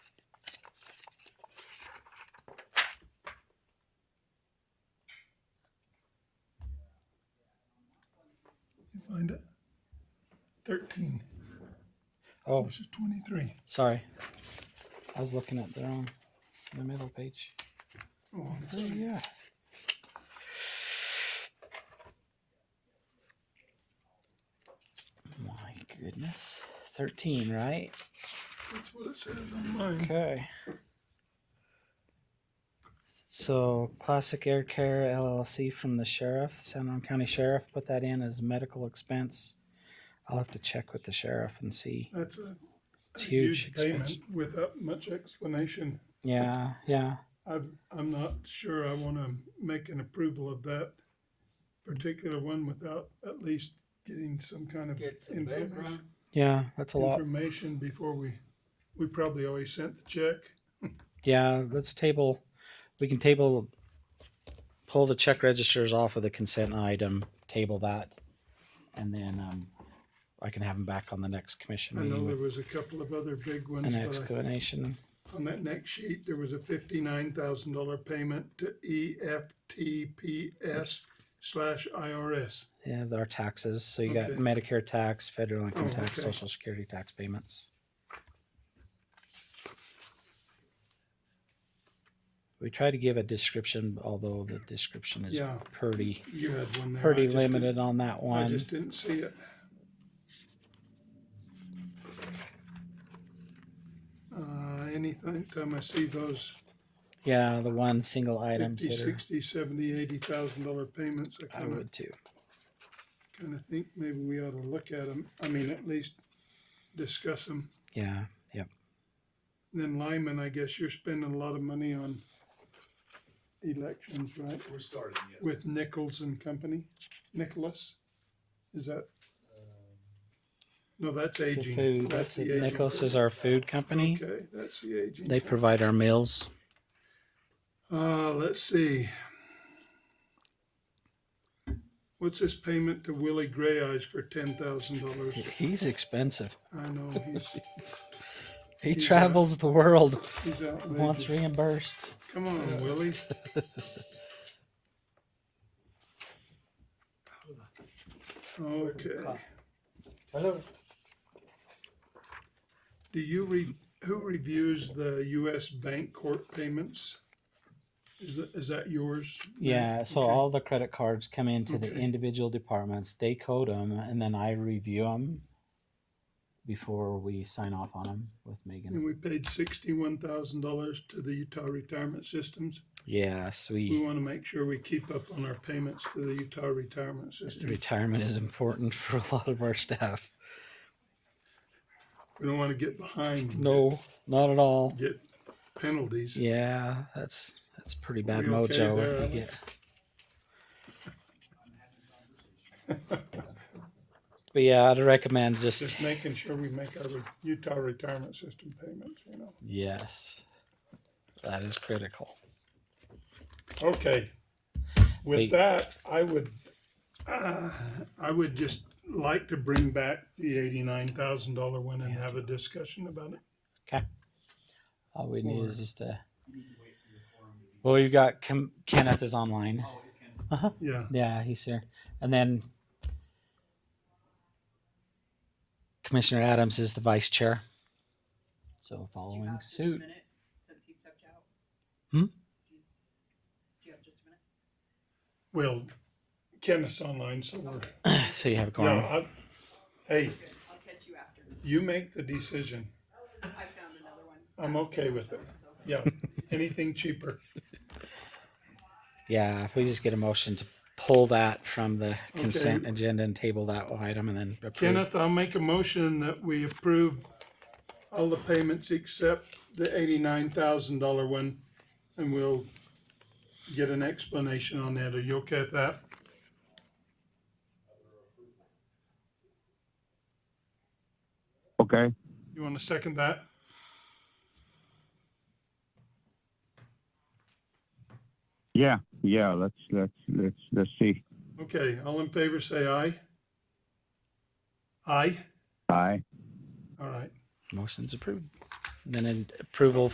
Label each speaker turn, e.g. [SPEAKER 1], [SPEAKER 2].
[SPEAKER 1] thirteen
[SPEAKER 2] Oh,
[SPEAKER 1] versus twenty-three.
[SPEAKER 2] sorry. I was looking at the wrong, the middle page.
[SPEAKER 1] Oh, I'm
[SPEAKER 2] Oh,
[SPEAKER 1] sorry.
[SPEAKER 2] yeah. My goodness. 13, right?
[SPEAKER 1] That's what it says on mine.
[SPEAKER 2] Okay. So, Classic Air Care LLC from the sheriff, San Juan County Sheriff, put that in as medical expense. I'll have to check with the sheriff and see.
[SPEAKER 1] That's a, a
[SPEAKER 2] It's huge
[SPEAKER 1] huge
[SPEAKER 2] expense.
[SPEAKER 1] payment without much explanation.
[SPEAKER 2] Yeah, yeah.
[SPEAKER 1] I'm, I'm not sure I want to make an approval of that particular one without at least getting some kind of
[SPEAKER 3] Get some
[SPEAKER 1] information.
[SPEAKER 3] background.
[SPEAKER 2] Yeah, that's a lot.
[SPEAKER 1] Information before we, we probably always sent the check.
[SPEAKER 2] Yeah, let's table, we can table, pull the check registers off of the consent item, table that. And then, um, I can have them back on the next commission
[SPEAKER 1] I know
[SPEAKER 2] meeting
[SPEAKER 1] there
[SPEAKER 2] with
[SPEAKER 1] was a couple of other big ones,
[SPEAKER 2] Mm. an
[SPEAKER 1] but I-
[SPEAKER 2] explanation.
[SPEAKER 1] on that next sheet, there was a fifty-nine thousand dollar payment to E EFTPS slash IRS.
[SPEAKER 2] Yeah, there are taxes. So you got
[SPEAKER 1] Okay.
[SPEAKER 2] Medicare tax, federal income
[SPEAKER 1] Oh,
[SPEAKER 2] tax,
[SPEAKER 1] okay.
[SPEAKER 2] social security tax payments. We try to give a description, although the description is
[SPEAKER 1] Yeah.
[SPEAKER 2] pretty,
[SPEAKER 1] You had one there. I
[SPEAKER 2] pretty
[SPEAKER 1] just didn't-
[SPEAKER 2] limited on that
[SPEAKER 1] I
[SPEAKER 2] one.
[SPEAKER 1] just didn't see it. Uh, anything, time I see those
[SPEAKER 2] Yeah, the one single items
[SPEAKER 1] fifty,
[SPEAKER 2] that are,
[SPEAKER 1] sixty, seventy, eighty thousand dollar payments, I
[SPEAKER 2] I
[SPEAKER 1] kinda
[SPEAKER 2] would too.
[SPEAKER 1] kind of think maybe we ought to look at them. I mean, at least discuss them.
[SPEAKER 2] Yeah,
[SPEAKER 1] Then Lyman, I guess you're spending a lot of money on elections, right?
[SPEAKER 4] We're starting, yes.
[SPEAKER 1] With Nichols and Company, Nicholas? Is that, no, that's
[SPEAKER 2] The
[SPEAKER 1] aging.
[SPEAKER 2] food,
[SPEAKER 1] That's the aging.
[SPEAKER 2] Nichols is our food company.
[SPEAKER 1] Okay, that's the aging.
[SPEAKER 2] They provide our meals.
[SPEAKER 1] Uh, let's see. What's this payment to Willie Gray Eyes for ten thousand dollars?
[SPEAKER 2] He's expensive.
[SPEAKER 1] I know, he's,
[SPEAKER 2] He
[SPEAKER 1] He's, uh,
[SPEAKER 2] travels the world,
[SPEAKER 1] he's
[SPEAKER 2] wants
[SPEAKER 1] outrageous.
[SPEAKER 2] reimbursed.
[SPEAKER 1] Come on, Willie. Okay.
[SPEAKER 3] Hello.
[SPEAKER 1] Do you re, who reviews the US bank court payments? Is that, is that yours?
[SPEAKER 2] Yeah, so
[SPEAKER 1] Okay.
[SPEAKER 2] all the credit cards come into the
[SPEAKER 1] Okay.
[SPEAKER 2] individual departments. They code them, and then I review them before we sign off on them with
[SPEAKER 1] And
[SPEAKER 2] Megan.
[SPEAKER 1] we paid sixty-one thousand dollars to the Utah Retirement Systems.
[SPEAKER 2] Yes,
[SPEAKER 1] We
[SPEAKER 2] we
[SPEAKER 1] want to make sure we keep up on our payments to the Utah Retirement System.
[SPEAKER 2] retirement is important for a lot of our staff.
[SPEAKER 1] We don't want to get behind. and
[SPEAKER 2] No, not at all.
[SPEAKER 1] Get penalties.
[SPEAKER 2] Yeah, that's that's pretty bad
[SPEAKER 1] We okay
[SPEAKER 2] mojo
[SPEAKER 1] there,
[SPEAKER 2] if you get. But yeah, I'd recommend just
[SPEAKER 1] Just making sure we make our re- Utah Retirement System payments, you know.
[SPEAKER 2] yes, that is critical.
[SPEAKER 1] Okay.
[SPEAKER 2] Wait.
[SPEAKER 1] With that, I would, uh, I would just like to bring back the eighty-nine thousand dollar one and have a discussion about it.
[SPEAKER 2] All we need
[SPEAKER 1] Or-
[SPEAKER 2] is just a. Well, you got Kim, Kenneth is online.
[SPEAKER 1] Yeah,
[SPEAKER 2] Yeah, he's here, and then Commissioner Adams is the vice chair. So
[SPEAKER 5] Do you
[SPEAKER 2] following
[SPEAKER 5] have just a
[SPEAKER 2] suit,
[SPEAKER 5] minute Since he stepped out?
[SPEAKER 2] Hmm?
[SPEAKER 5] Do you- do you have just a minute?
[SPEAKER 1] well, Kenneth's online, so we're,
[SPEAKER 2] so you have a quorum.
[SPEAKER 1] yeah, I, hey,
[SPEAKER 5] Good, I'll catch you after.
[SPEAKER 1] you make the decision.
[SPEAKER 5] I found another one.
[SPEAKER 1] I'm okay with it.
[SPEAKER 5] So-
[SPEAKER 1] Yeah, anything cheaper.
[SPEAKER 2] Yeah, if we just get a motion to pull that from the consent agenda and table that item, and then approve.
[SPEAKER 1] Kenneth, I'll make a motion that we approve all the payments except the eighty-nine thousand dollar one. And we'll get an explanation on that. Are you okay with that?
[SPEAKER 6] Okay.
[SPEAKER 1] You want to second that?
[SPEAKER 6] Yeah. Yeah. Let's let's let's let's see.
[SPEAKER 1] Okay, all in favor, say aye. Aye,
[SPEAKER 6] Aye.
[SPEAKER 1] all right.
[SPEAKER 2] Motion's approved. And then an approval